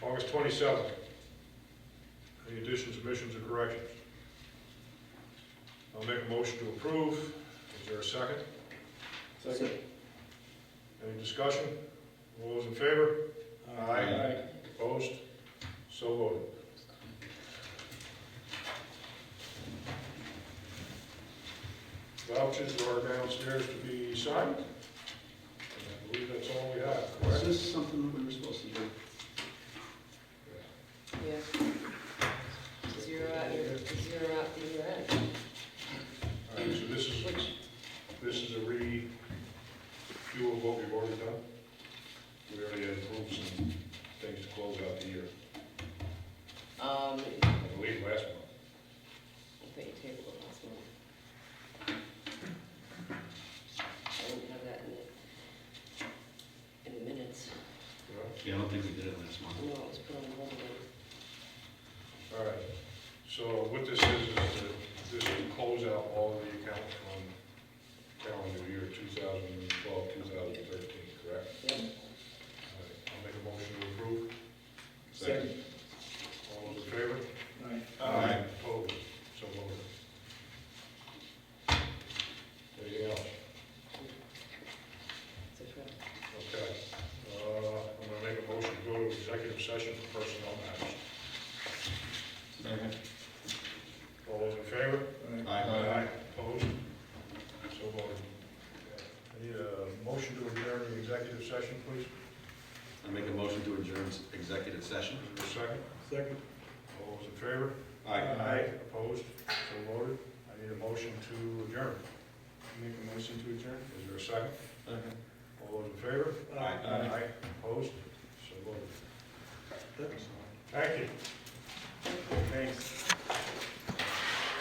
twenty-seven. Any additions, omissions, or corrections? I'll make a motion to approve. Is there a second? Second. Any discussion? All those in favor? Opposed? So voted. Vouchers are downstairs to be signed. And I believe that's all we have, Is correct? this something that we were supposed to do? Yes. Zero out your, zero out the year end, All right, so this is, which, this is a review of what we've already done. We already had approved some things to close out the year, um, I believe last month. I thought you tabled it last month. I didn't have that in it. In the minutes, you know? Yeah, I don't think we did it last month. no, it was put on the wrong one. All right, so what this is, is that this will close out all of the accounts from calendar year 2012, 2013, correct? Yep, All right, I'll make a motion to approve. Second. All those in favor? Aye. Opposed, so voted. Anything else? so correct. Okay, uh, I'm gonna make a motion to go to executive session for personnel matters. Second. All those in favor? Aye. Opposed? So voted. I need a motion to adjourn the executive session, please. I make a motion to adjourn executive session. Is there a second? Second. All those in favor? Opposed? So voted. I need a motion to adjourn. Make a motion to adjourn? Is there a second? Second. All those in favor? Aye. Opposed? So voted. Second. Thank you. Thanks.